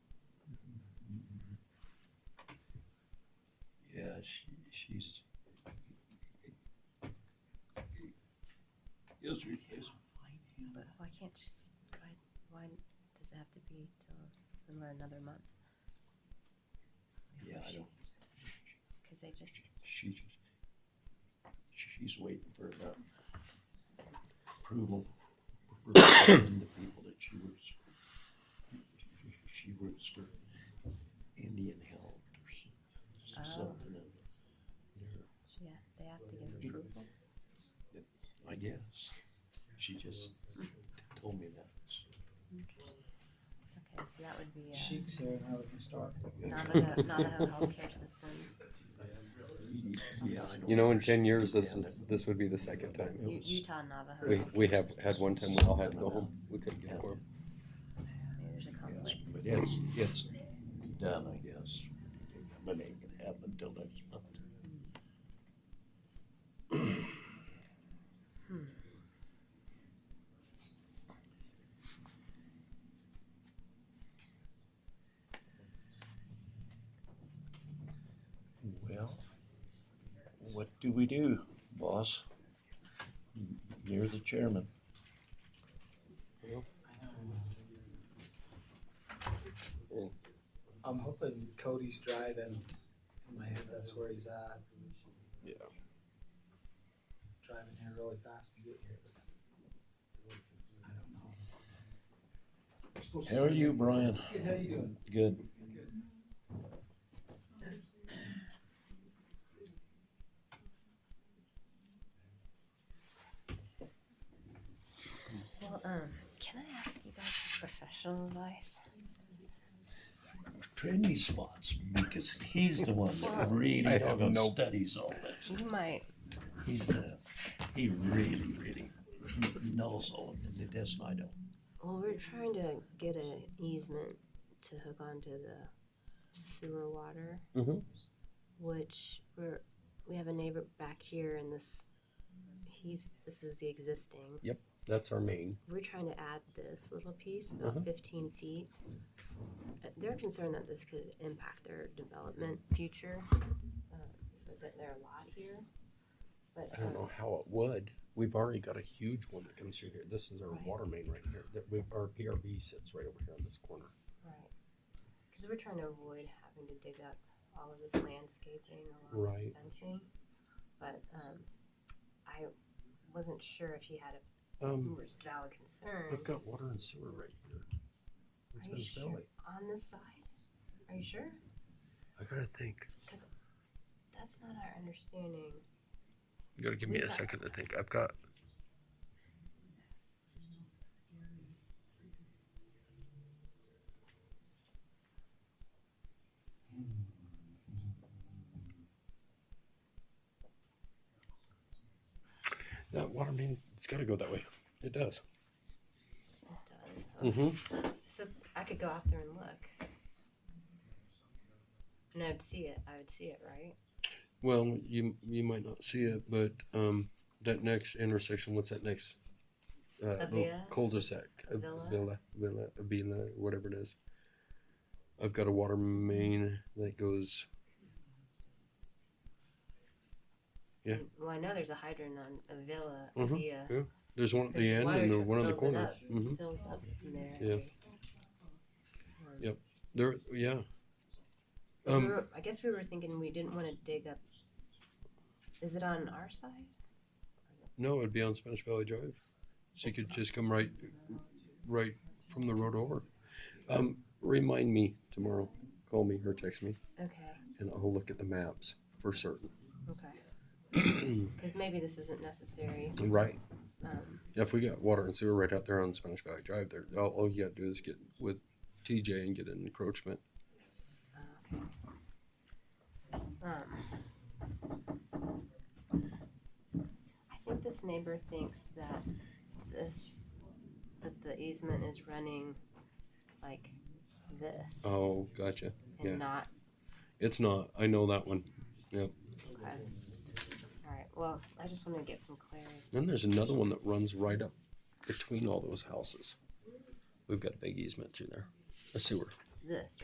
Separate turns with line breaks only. she, she's. Yes, we can.
But why can't she, s- why, why does it have to be till then we're another month?
Yeah, I don't,
Cause they just,
she, she's waiting for the approval. for The people that she works, she works for Indian Health or some-
Oh.
something. and, you know,
she, ha- they have to give approval?
I guess. She just told me that.
Mm-hmm.
Okay, so that would be, uh,
Sheik's here and how we can start.
Navajo, Navajo Healthcare Systems.
Yeah, I
You know, in ten years, this is, this would be the second time. It
U-
was-
Utah Navajo.
We, we
Healthcare
have
Systems.
had one time we all had to go home. We couldn't get a quorum.
Maybe there's a conflict.
But it's, it's done, I guess. But they can have until next month. Well, what do we do, boss? You're the chairman.
I'm hoping Cody's driving. In my head, that's where he's at.
Yeah.
Driving here really fast to get here. I don't know.
How are you, Brian?
Good, how you doing?
Good.
Well, um, can I ask you guys for professional advice?
trendy spots because he's the one that really
I have
doggone
no-
studies all this.
You might,
He's the, he really, really knows all of it. That's not, I don't.
well, we're trying to get an easement to hook onto the sewer water.
Mhm.
Which we're, we have a neighbor back here and this, he's, this is the existing.
That's our main.
We're trying to add this little piece,
Uh-huh.
about fifteen feet. Uh, They're concerned that this could impact their development future, uh, that their lot here. But,
I don't
um,
know how it would. We've already got a huge one that comes through here. This is our water main right here. That we, our PRB sits right over here on this corner.
right, because we're trying to avoid having to dig up all of this landscaping, all of this
Right.
fencing. But, um, I wasn't sure if he had a
Um,
was valid concern
I've got water and sewer right here. It's
Are
been
you sure?
filling.
on this side. Are you sure?
I gotta think.
That's not our understanding.
You gotta give me a second to think. I've got. That water main, it's gotta go that way. It does.
It does. huh?
Mm-hmm.
So I could go out there and look. And I'd see it. I would see it, right?
Well, you you might not see it, but um, that next intersection, what's that next? Uh, little
Avila?
cul-de-sac, A-
Avila?
Villa, Villa, Avila, whatever it is. I've got a water main that goes. Yeah.
And- Well, I know there's a hydrant on a villa
Mhm.
via
There's one at
There's
the end
water
and then
that
one on the
fills it
corner.
up.
hmm
fills up from there.
Yeah.
Um,
Yep. There, yeah.
we
Um,
were- I guess we were thinking we didn't want to dig up. Is it on our side?
no, it'd be on Spanish Valley Drive, so you
It's
could
not.
just come right, right from the road over. Um, remind me tomorrow. Call me or text me.
Okay.
and I'll look at the maps for certain.
Okay. Because maybe this isn't necessary.
Right.
Um,
If we got water and sewer right out there on Spanish Valley Drive, there, all, all you gotta do is get with TJ and get an encroachment.
oh, okay. Um, I think this neighbor thinks that this that the easement is running like this
Oh, gotcha.
and
yeah.
not.
It's not. I know that one.
Okay. All right. Well, I just want to get some clarity.
Then there's another one that runs right up between all those houses. We've got a big easement through there, a sewer.
This